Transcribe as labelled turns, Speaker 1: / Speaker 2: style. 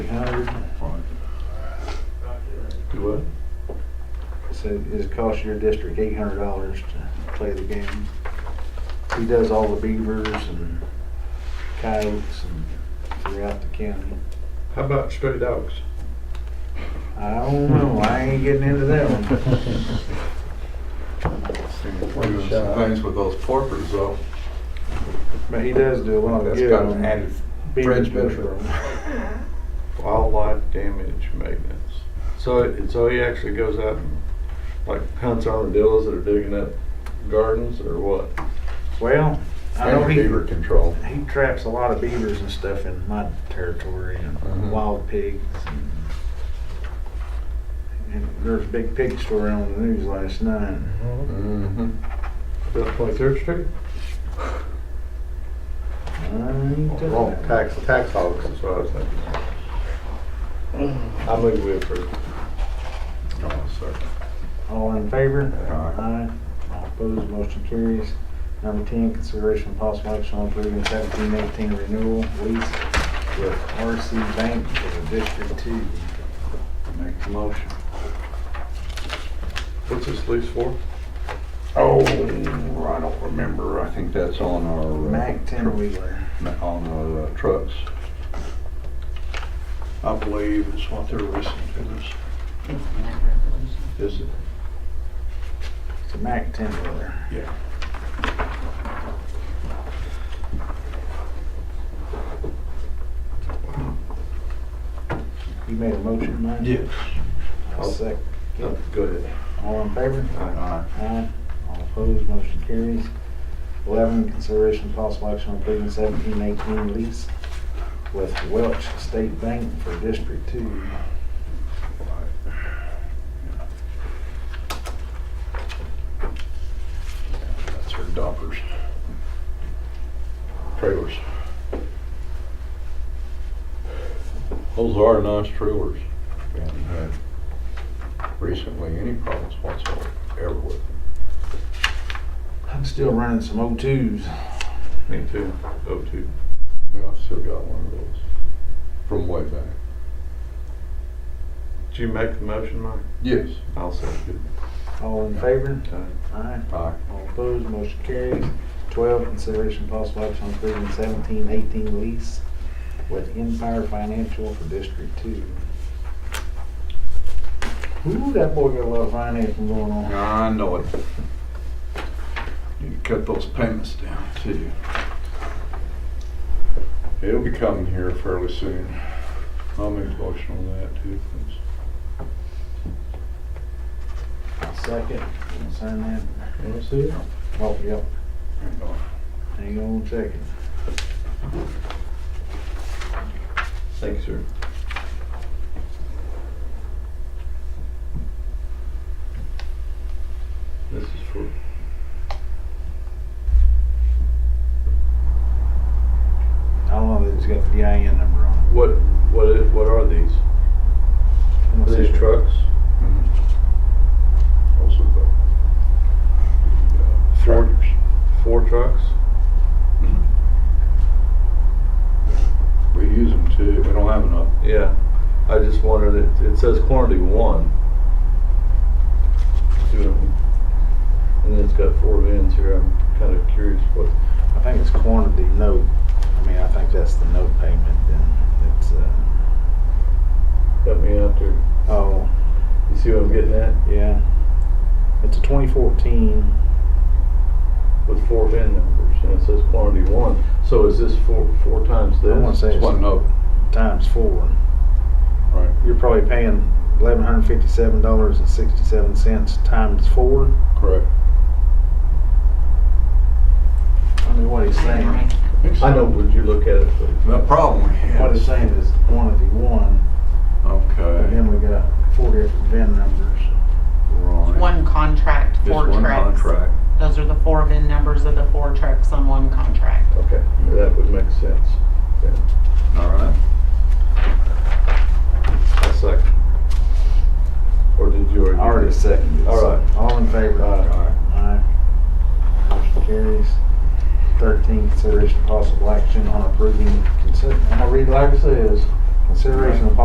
Speaker 1: hours.
Speaker 2: Do what?
Speaker 1: So it costs your district eight hundred dollars to play the game. He does all the beavers and coyotes and throughout the county.
Speaker 2: How about stray dogs?
Speaker 1: I don't know, I ain't getting into that one.
Speaker 2: Doing some things with those porpoises though.
Speaker 1: But he does do a lot of
Speaker 2: That's
Speaker 1: good.
Speaker 2: got an
Speaker 1: on
Speaker 2: added
Speaker 1: beaver
Speaker 2: fringe benefit.
Speaker 1: control.
Speaker 2: Wildlife damage maintenance. So, it- so he actually goes out and like hunts armadillos that are digging up gardens or what?
Speaker 1: Well, I know
Speaker 2: And
Speaker 1: he.
Speaker 2: Beaver control.
Speaker 1: He traps a lot of beavers and stuff in my territory and
Speaker 2: Mhm.
Speaker 1: wild pigs. And, and there was a big pig story on the news last night.
Speaker 2: Mm-hmm. About Twenty-third Street?
Speaker 1: I ain't touching
Speaker 2: Wrong,
Speaker 1: that.
Speaker 2: tax, tax hogs is what I was thinking.
Speaker 1: Mm.
Speaker 2: I move we approve. Oh, sorry.
Speaker 1: All in favor?
Speaker 2: Aye.
Speaker 1: All opposed, motion carries. Number ten, consideration of possible action on approving seventeen eighteen renewal lease with RC Bank for the District Two.
Speaker 3: Make the motion.
Speaker 2: What's this lease for?
Speaker 3: Oh, I don't remember. I think that's on our. uh,
Speaker 1: Mac ten wheeler.
Speaker 3: tr- On our uh, trucks. I believe is what they're listening to this.
Speaker 4: It's in that resolution.
Speaker 3: Is it?
Speaker 1: It's a Mac ten wheeler.
Speaker 3: Yeah.
Speaker 1: You made a motion, Mike?
Speaker 3: Yes.
Speaker 1: I'll second.
Speaker 2: No, Go ahead.
Speaker 1: All in favor?
Speaker 3: Aye.
Speaker 1: Aye. All opposed, motion carries. Eleven, consideration of possible action on approving seventeen eighteen lease with Welch State Bank for District Two.
Speaker 3: That's her dockers. Trailers. Those are nice trailers. Haven't had recently any problems whatsoever with them.
Speaker 1: I'm still running some O twos.
Speaker 2: Me too. Go to.
Speaker 3: Yeah, I've still got one of those from way back.
Speaker 2: Did you make the motion, Mike?
Speaker 3: Yes.
Speaker 2: I'll second.
Speaker 1: All in favor?
Speaker 2: it. Uh,
Speaker 1: Aye.
Speaker 3: Aye.
Speaker 1: All opposed, motion carries. Twelve, consideration of possible action on approving seventeen eighteen lease with Empire Financial for District Two. Ooh, that boy got a lot of financing going on.
Speaker 3: I know it. Need to cut those payments down too. It'll be coming here fairly soon. I'll make a motion on that too, please.
Speaker 1: Second, Wanna sign that.
Speaker 2: Wanna see it?
Speaker 1: Oh, yep,
Speaker 3: Hang on.
Speaker 1: hang on one second.
Speaker 2: Thank you, sir. This is for.
Speaker 1: I don't know that it's got the DIN number on it.
Speaker 2: What, what, i- what are these?
Speaker 1: I'm gonna
Speaker 2: Are
Speaker 1: see.
Speaker 2: these trucks?
Speaker 3: Mhm. Also the uh,
Speaker 2: Four-
Speaker 3: tractors.
Speaker 2: Four trucks?
Speaker 3: We use them too. We don't have enough.
Speaker 2: Yeah. I just wondered, it, it says quantity one. Two of 'em. And then it's got four vans here. I'm kind of curious what,
Speaker 1: I think it's quantity note, I mean, I think that's the note payment then, it's, uh,
Speaker 2: got me out there.
Speaker 1: oh,
Speaker 2: You see what I'm getting at?
Speaker 1: yeah. It's a twenty fourteen,
Speaker 2: With four VIN numbers and it says quantity one. So is this four, four times
Speaker 1: I
Speaker 2: this?
Speaker 1: wanna say
Speaker 3: It's
Speaker 1: it's
Speaker 3: one note,
Speaker 1: times four.
Speaker 3: right?
Speaker 1: You're probably paying eleven hundred fifty-seven dollars and sixty-seven cents times four.
Speaker 3: Correct.
Speaker 1: I mean, what he's saying,
Speaker 2: I know, would you look at it, please?
Speaker 3: The problem we have.
Speaker 1: what he's saying is quantity one, but
Speaker 3: Okay.
Speaker 1: then we got four different VIN numbers.
Speaker 3: Right.
Speaker 4: One contract,
Speaker 3: Just
Speaker 4: four
Speaker 3: one
Speaker 4: trucks.
Speaker 3: contract.
Speaker 4: Those are the four VIN numbers of the four trucks on one contract.
Speaker 2: Okay, that would make sense. Yeah,
Speaker 3: All right.
Speaker 2: I second. Or did you already?
Speaker 1: Already seconded.
Speaker 2: All right.
Speaker 1: All in favor? Aye. Motion carries. Thirteen, consideration of possible action on approving, consi- I'm gonna read like it says. Consideration of